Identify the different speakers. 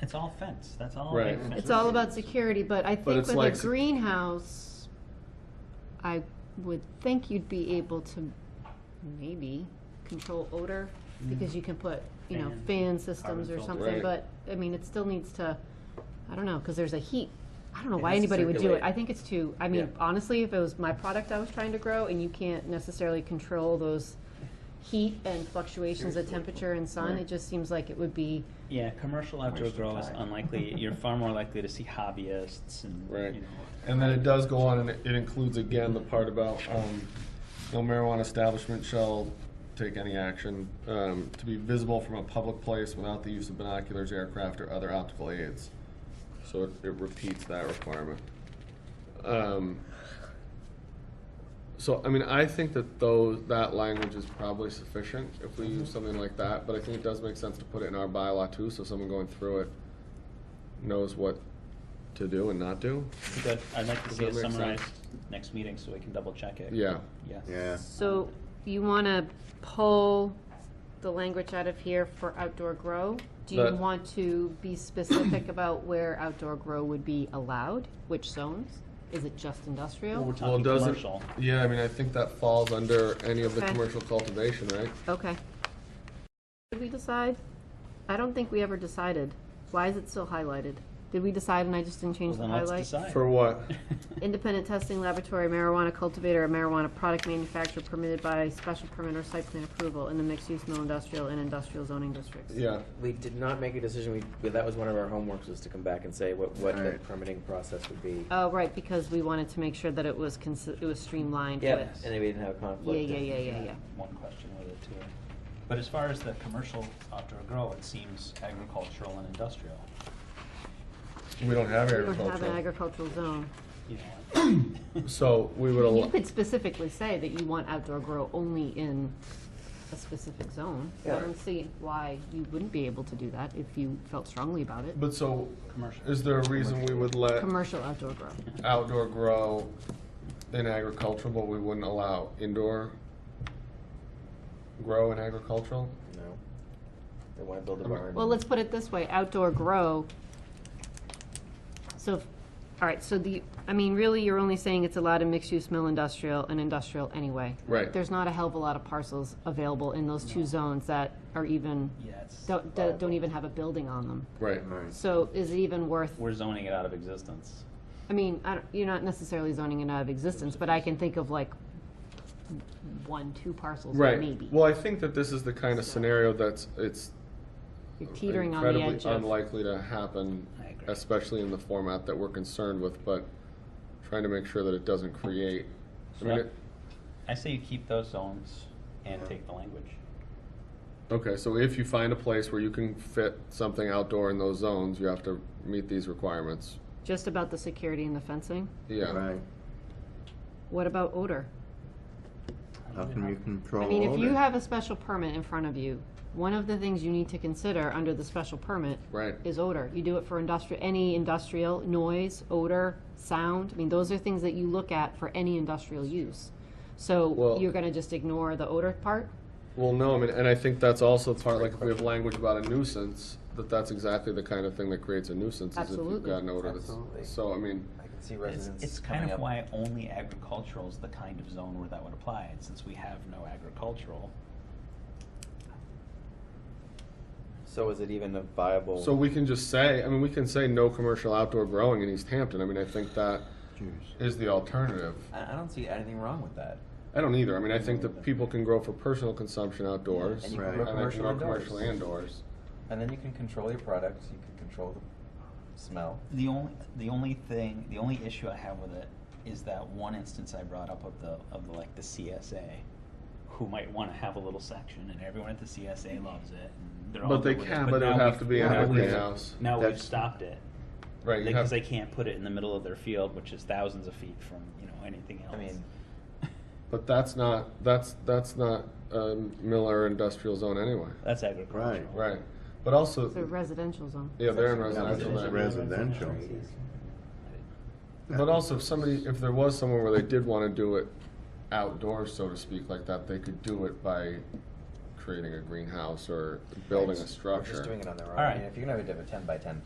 Speaker 1: It's all fence, that's all.
Speaker 2: Right.
Speaker 1: big fence.
Speaker 3: It's all about security, but I think
Speaker 2: it's
Speaker 3: with a
Speaker 2: like sec-
Speaker 3: greenhouse, I would think you'd be able to maybe control odor, because you can put, you know,
Speaker 1: Mm. Fan.
Speaker 3: fan systems
Speaker 1: Carbon
Speaker 3: or
Speaker 1: filter.
Speaker 3: something,
Speaker 2: Right.
Speaker 3: but, I mean, it still needs to, I don't know, because there's a heat. I don't know
Speaker 1: It
Speaker 3: why
Speaker 1: has to
Speaker 3: anybody would do it.
Speaker 2: circulate.
Speaker 3: I think it's too, I mean,
Speaker 2: Yeah.
Speaker 3: honestly, if it was my product I was trying to grow, and you can't necessarily control those heat and fluctuations of
Speaker 2: Seriously.
Speaker 3: temperature and sun,
Speaker 2: Right.
Speaker 3: it just seems like it would be,
Speaker 1: Yeah, commercial outdoor
Speaker 4: Waste of
Speaker 1: grow is
Speaker 4: time.
Speaker 1: unlikely, you're far more likely to see hobbyists and,
Speaker 2: Right.
Speaker 1: you know.
Speaker 2: And then it does go on, and it it includes again the part about, um, no marijuana establishment shall take any action, um, to be visible from a public place without the use of binoculars, aircraft, or other optical aids. So it, it repeats that requirement. Um, so, I mean, I think that those, that language is probably sufficient if we use something like that, but I think it does make sense to put it in our bylaw too, so someone going through it knows what to do and not do.
Speaker 1: Good, I'd like to
Speaker 2: Does
Speaker 1: see
Speaker 2: that
Speaker 1: it
Speaker 2: make sense?
Speaker 1: summarized next meeting so we can double check it.
Speaker 2: Yeah.
Speaker 1: Yes.
Speaker 4: Yeah.
Speaker 3: So you want to pull the language out of here for outdoor grow? Do you
Speaker 2: But-
Speaker 3: want to be specific about where outdoor grow would be allowed? Which zones? Is it just industrial?
Speaker 2: Well,
Speaker 1: Talking
Speaker 2: it doesn't.
Speaker 1: commercial.
Speaker 2: Yeah, I mean, I think that falls under any of the
Speaker 3: Okay.
Speaker 2: commercial cultivation, right?
Speaker 3: Okay. Did we decide? I don't think we ever decided. Why is it still highlighted? Did we decide and I just didn't
Speaker 1: Well,
Speaker 3: change the
Speaker 1: then let's
Speaker 3: highlight?
Speaker 1: decide.
Speaker 2: For what?
Speaker 3: Independent testing laboratory, marijuana cultivator, or marijuana product manufacturer permitted by special permit or site plan approval in the mixed-use mill industrial and industrial zoning districts.
Speaker 2: Yeah,
Speaker 5: We did not make a decision. We, we- that was one of our homeworks was to come back and say what, what the
Speaker 4: Right.
Speaker 5: permitting process would be.
Speaker 3: Oh, right, because we wanted to make sure that it was consi- it was streamlined
Speaker 5: Yeah,
Speaker 3: with.
Speaker 5: and then we didn't have a
Speaker 3: Yeah,
Speaker 5: conflict.
Speaker 3: yeah, yeah, yeah, yeah.
Speaker 1: One question with it too. But as far as the commercial outdoor grow, it seems agricultural and industrial,
Speaker 2: we don't have
Speaker 3: We don't have an
Speaker 2: agriculture,
Speaker 3: agricultural zone.
Speaker 1: you know.
Speaker 2: so we would,
Speaker 3: You
Speaker 2: al-
Speaker 3: could specifically say that you want outdoor grow only in a specific zone. I
Speaker 5: Yeah.
Speaker 3: don't see why you wouldn't be able to do that if you felt strongly about it.
Speaker 2: but so,
Speaker 1: Commercial.
Speaker 2: is there a reason we would let
Speaker 3: Commercial outdoor grow.
Speaker 2: outdoor grow in agricultural, but we wouldn't allow indoor grow in agricultural?
Speaker 5: No. They want to build a
Speaker 2: Okay.
Speaker 5: barn.
Speaker 3: Well, let's put it this way, outdoor grow. So, if- all right, so the, I mean, really, you're only saying it's allowed in mixed-use mill industrial and industrial anyway.
Speaker 2: Right.
Speaker 3: There's not a hell of a lot of parcels available in those two zones that are even,
Speaker 1: Yeah, it's,
Speaker 3: don't, don't don't even have a building on them.
Speaker 2: Right,
Speaker 4: Alright.
Speaker 3: So is it even worth,
Speaker 1: we're zoning it out of existence.
Speaker 3: I mean, I don't, you're not necessarily zoning it out of existence, but I can think of like one, two parcels
Speaker 2: right.
Speaker 3: maybe.
Speaker 2: Well, I think that this is the kind of scenario that's, it's
Speaker 3: You're teetering on the
Speaker 2: incredibly
Speaker 3: edge of.
Speaker 2: unlikely to happen,
Speaker 1: I agree.
Speaker 2: especially in the format that we're concerned with, but trying to make sure that it doesn't create, I mean,
Speaker 1: Right.
Speaker 2: it-
Speaker 1: I say you keep those zones and
Speaker 4: Yeah.
Speaker 1: take the language.
Speaker 2: Okay, so if you find a place where you can fit something outdoor in those zones, you have to meet these requirements.
Speaker 3: Just about the security and the fencing?
Speaker 2: Yeah,
Speaker 4: Right.
Speaker 3: What about odor?
Speaker 4: How can you control
Speaker 3: I mean, if you
Speaker 4: odor?
Speaker 3: have a special permit in front of you, one of the things you need to consider under the special permit
Speaker 2: right.
Speaker 3: is odor. You do it for industrial, any industrial, noise, odor, sound. I mean, those are things that you look at for any industrial use. So
Speaker 2: Well-
Speaker 3: you're gonna just ignore the odor part?
Speaker 2: Well, no, I mean, and I think that's also part, like, if we have language about a nuisance, that that's exactly the kind of thing that creates a nuisance, is if you've
Speaker 3: Absolutely.
Speaker 2: got an odor that's,
Speaker 5: Absolutely.
Speaker 2: so, I mean,
Speaker 5: I can see
Speaker 1: It's,
Speaker 5: residents
Speaker 1: it's
Speaker 5: coming
Speaker 1: kind of
Speaker 5: up.
Speaker 1: why only agricultural is the kind of zone where that would apply, and since we have no agricultural,
Speaker 5: So is it even a viable?
Speaker 2: so we can just say, I mean, we can say no commercial outdoor growing in East Hampton, I mean, I think that
Speaker 4: Jeez.
Speaker 2: is the alternative.
Speaker 5: I, I don't see anything wrong with that.
Speaker 2: I don't either, I mean, I think that people can grow for personal consumption outdoors, and
Speaker 5: And you
Speaker 2: I
Speaker 4: Right.
Speaker 5: can grow
Speaker 2: can
Speaker 5: commercial
Speaker 2: grow
Speaker 5: indoors.
Speaker 2: commercially indoors.
Speaker 5: And then you can control your product. You can control the smell.
Speaker 1: The only, the only thing, the only issue I have with it is that one instance I brought up of the, of the, like, the CSA, who might wanna have a little section, and everyone at the CSA loves it, and they're all.
Speaker 2: But they
Speaker 1: good with
Speaker 2: can, but
Speaker 1: now
Speaker 2: it'd have
Speaker 1: we've-
Speaker 2: to be in
Speaker 1: now
Speaker 2: a
Speaker 1: we've-
Speaker 2: greenhouse.
Speaker 1: Now we've
Speaker 4: That's-
Speaker 1: stopped it,
Speaker 2: Right, you have-
Speaker 1: because they can't put it in the middle of their field, which is thousands of feet from, you know, anything else.
Speaker 5: I mean,
Speaker 2: But that's not, that's, that's not a Miller industrial zone anyway.
Speaker 1: That's agricultural.
Speaker 2: Right. But also,
Speaker 3: It's a residential zone.
Speaker 2: yeah, they're in
Speaker 4: That's
Speaker 2: residential.
Speaker 4: a
Speaker 2: land.
Speaker 4: residential.
Speaker 2: But also, if somebody, if there was somewhere where they did want to do it outdoors, so to speak, like that, they could do it by creating a greenhouse or building a
Speaker 5: We're just
Speaker 2: structure.
Speaker 5: doing it on their own.
Speaker 1: All
Speaker 5: I
Speaker 1: right.
Speaker 5: mean, if you're gonna have a ten by ten